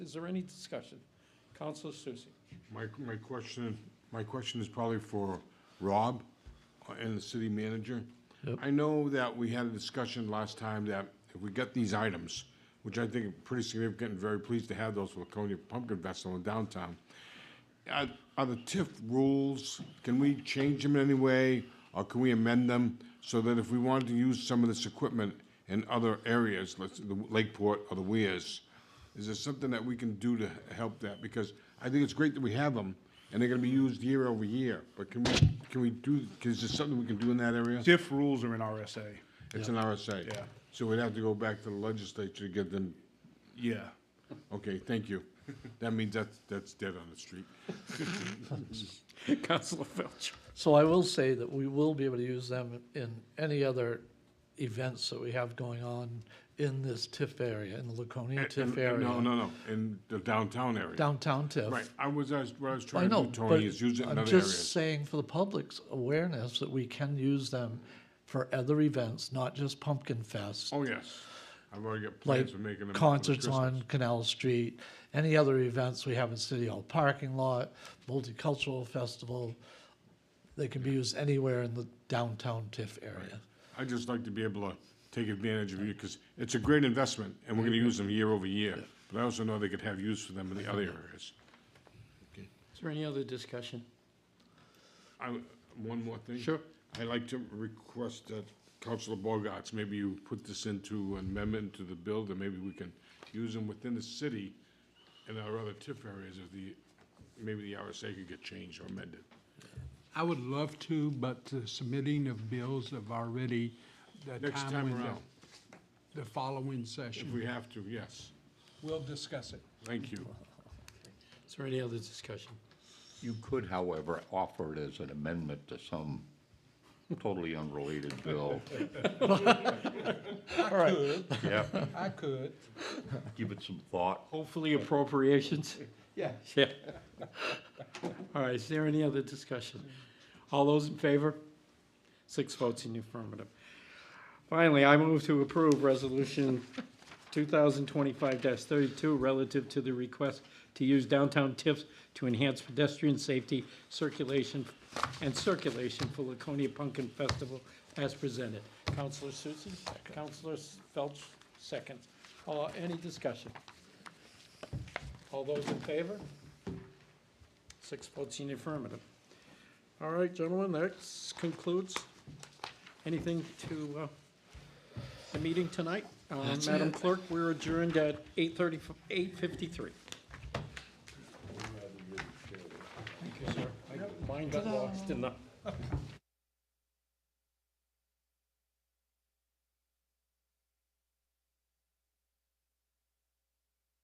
Is there any discussion? Counselor Susie. My, my question, my question is probably for Rob uh, and the city manager. I know that we had a discussion last time that if we get these items, which I think are pretty significant and very pleased to have those Laconia Pumpkin Festival in downtown. Are are the TIF rules, can we change them in any way, or can we amend them so that if we wanted to use some of this equipment in other areas, let's, the Lakeport or the Weirs, is there something that we can do to help that? Because I think it's great that we have them, and they're gonna be used year over year, but can we, can we do, is there something we can do in that area? Diff rules are in RSA. It's an RSA. Yeah. So we'd have to go back to the legislature to get them, Yeah. okay, thank you. That means that's, that's dead on the street. Counselor Felch. So I will say that we will be able to use them in any other events that we have going on in this TIF area, in the Laconia TIF No, area, no, no, in the downtown area. downtown TIF. Right, I was, I was, what I was I trying to know, do, Tony, but is use it in I'm other just areas. saying for the public's awareness that we can use them for other events, not just Pumpkin Fest. Oh, yes. I've already got Like plans for making them. concerts on Canal Street, any other events we have in City Hall parking lot, multicultural festival. They can be used anywhere in the downtown TIF area. i just like to be able to take advantage of you, because it's a great investment, and we're gonna use them year over year. But I also know they could have use for them in the other areas. Is there any other discussion? I, one more thing. Sure. I'd like to request that Councilor Bogarts, maybe you put this into an amendment to the bill, that maybe we can use them within the city and our other TIF areas of the, maybe the RSA could get changed or amended. I would love to, but the submitting of bills have already, the Next time time window, around. the following If session, we have to, yes. we'll discuss it. Thank you. Is there any other discussion? You could, however, offer it as an amendment to some totally unrelated bill. I could, Yeah, I could. give it some thought. Hopefully appropriations. Yeah. Yeah. All right, is there any other discussion? All those in favor? Six votes in the affirmative. Finally, I move to approve Resolution 2025-32 relative to the request to use downtown TIFs to enhance pedestrian safety, circulation, and circulation for Laconia Pumpkin Festival as presented. Counselor Susie? Counselor Felch, second. Uh, Any discussion? All those in favor? Six votes in affirmative. All right, gentlemen, that concludes. Anything to, uh, the meeting tonight? Uh, Madam Clerk, we're adjourned at eight thirty, eight fifty-three. Thank you, sir. I- Mine got lost in the